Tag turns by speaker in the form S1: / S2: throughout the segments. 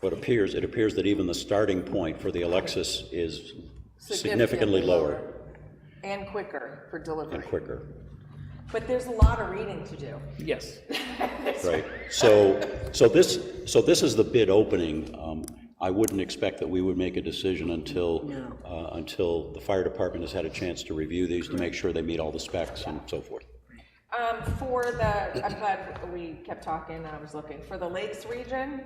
S1: What appears, it appears that even the starting point for the Alexis is significantly lower
S2: And quicker for
S1: and
S2: delivery.
S1: quicker,
S2: But there's a lot of reading to do.
S3: Yes.
S1: right? So, so this, so this is the bid opening. Um, I wouldn't expect that we would make a decision until, uh, until the fire department has had a chance to review these to make sure they meet all the specs and so forth.
S2: Um, for the, I'm glad we kept talking, and I was looking, for the Lakes region,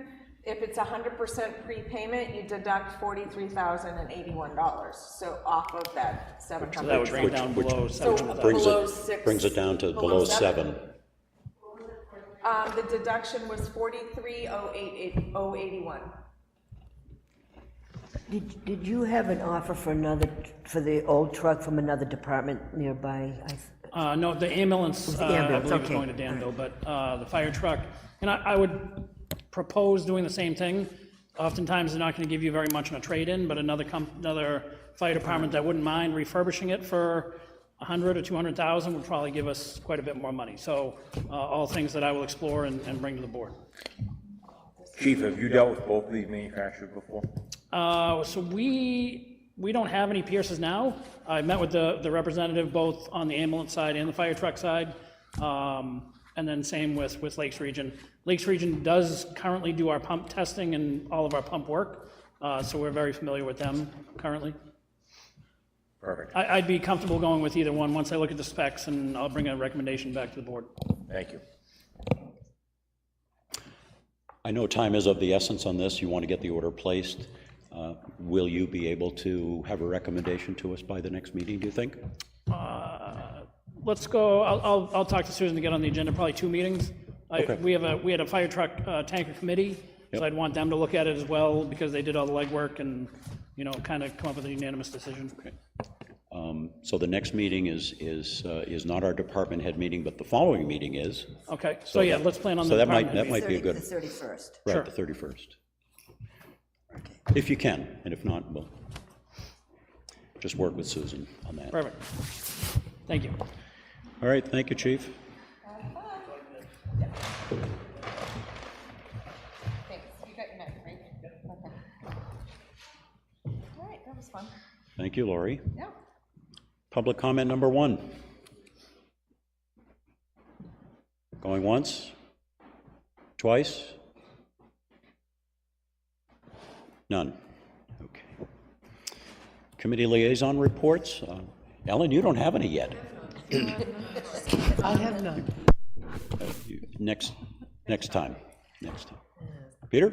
S2: if it's hundred percent prepayment, you deduct forty-three thousand and eighty-one dollars, so off of that seven
S3: So that
S2: hundred.
S3: would bring down
S1: which-
S3: below
S2: So
S3: seven thousand.
S1: Brings
S2: below
S1: it,
S2: six.
S1: brings it down to below seven.
S2: Um, the deduction was forty-three oh eight, oh eighty-one.
S4: Did, did you have an offer for another, for the old truck from another department nearby? I th-
S3: Uh, no, the ambulance, uh, I
S4: ambulance,
S3: believe is
S4: okay,
S3: going to Danville, but, uh, the fire truck, and I, I would propose doing the same thing. Oftentimes, they're not gonna give you very much in a trade-in, but another com, another fire department that wouldn't mind refurbishing it for a hundred or two hundred thousand would probably give us quite a bit more money. So, uh, all things that I will explore and, and bring to the board.
S5: Chief, have you dealt with both of these manufacturers before?
S3: Uh, So we, we don't have any Pierces now. I met with the, the representative both on the ambulance side and the fire truck side. Um, And then same with, with Lakes Region. Lakes Region does currently do our pump testing and all of our pump work, uh, so we're very familiar with them currently.
S5: Perfect,
S3: I, I'd be comfortable going with either one, once I look at the specs, and I'll bring a recommendation back to the board.
S5: thank you.
S1: I know time is of the essence on this, you want to get the order placed. Uh, Will you be able to have a recommendation to us by the next meeting, do you think?
S3: Uh, Let's go, I'll, I'll, I'll talk to Susan to get on the agenda, probably two meetings. I-
S1: Okay.
S3: We have a, we had a fire truck uh, tanker committee,
S1: Yep.
S3: so I'd want them to look at it as well, because they did all the legwork and, you know, kind of come up with a unanimous decision.
S1: So the next meeting is, is, uh, is not our department head meeting, but the following meeting is.
S3: Okay, so Oh, yeah,
S1: that-
S3: let's plan on
S1: so
S3: the
S1: that might-
S3: department head
S1: that might-
S3: meeting.
S1: be a
S4: 30
S1: good-
S4: The thirty-first.
S1: Right,
S3: Sure.
S1: the 31st. If you can, and if not, we'll just work with Susan on that.
S3: Perfect. Thank you.
S1: All right, thank you, chief.
S2: Thanks, you got your note, right? Okay. All right, that was fun,
S1: Thank you, Lori.
S2: yeah.
S1: Public comment number one. Going once? Twice? None. Okay. Committee liaison reports. Uh, Ellen, you don't have any yet.
S6: I have none.
S1: Uh, you- Next, next time, next time. Peter?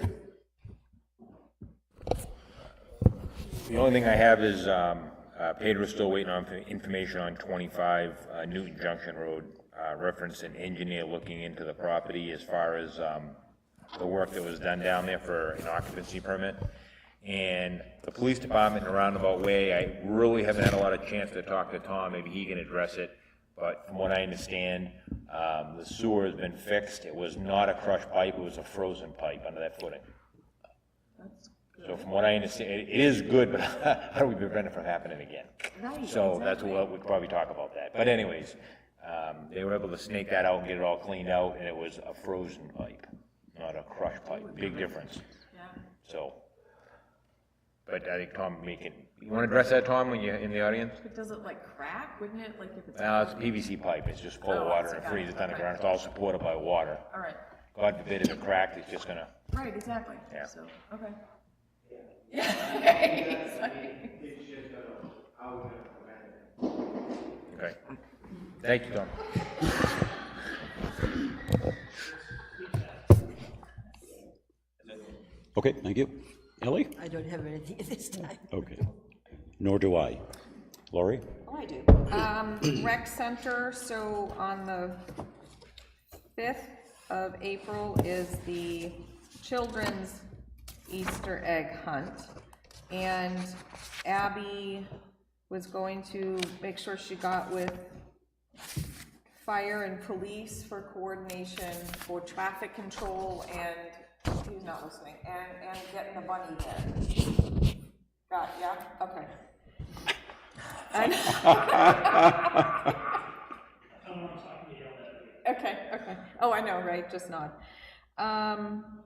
S5: The only thing I have is, um, uh, Pedro's still waiting on inf- information on 25 uh, Newton Junction Road, uh, reference an engineer looking into the property as far as um, the work that was done down there for an occupancy permit. And the police department in a roundabout way, I really haven't had a lot of chance to talk to Tom, maybe he can address it. But from what I understand, um, the sewer has been fixed, it was not a crushed pipe, it was a frozen pipe under that footing. So from what I understand, it it is good, but how do we prevent it from happening again? So that's what, we'd probably talk about that. But anyways, um, they were able to snake that out and get it all cleaned out, and it was a frozen pipe, not a crushed pipe. Big difference. So, but I think Tom may can, you want to address that, Tom, when you're in the audience?
S7: It doesn't like crack, wouldn't it? Like if it's.
S5: No, it's a PVC pipe. It's just full of
S7: Oh,
S5: water
S7: it's
S5: and it
S7: got it.
S5: freezes
S7: Okay.
S5: underground. It's all supported by water.
S7: All right,
S5: God forbid if it cracked, it's just gonna,
S7: right, exactly.
S5: Yeah.
S7: So, okay. Yeah.
S5: okay. Thank you, Tom.
S1: Okay, thank you. Ellie?
S4: I don't have anything at this time.
S1: Okay. Nor do I. Lori?
S2: Oh, I do. Um, rec center, so on the fifth of April is the children's Easter egg hunt. And Abby was going to make sure she got with fire and police for coordination for traffic control and, he's not listening, and, and getting the bunny there. Got, it, yeah, okay. Okay, okay. Oh, I know, right, just nod. Um,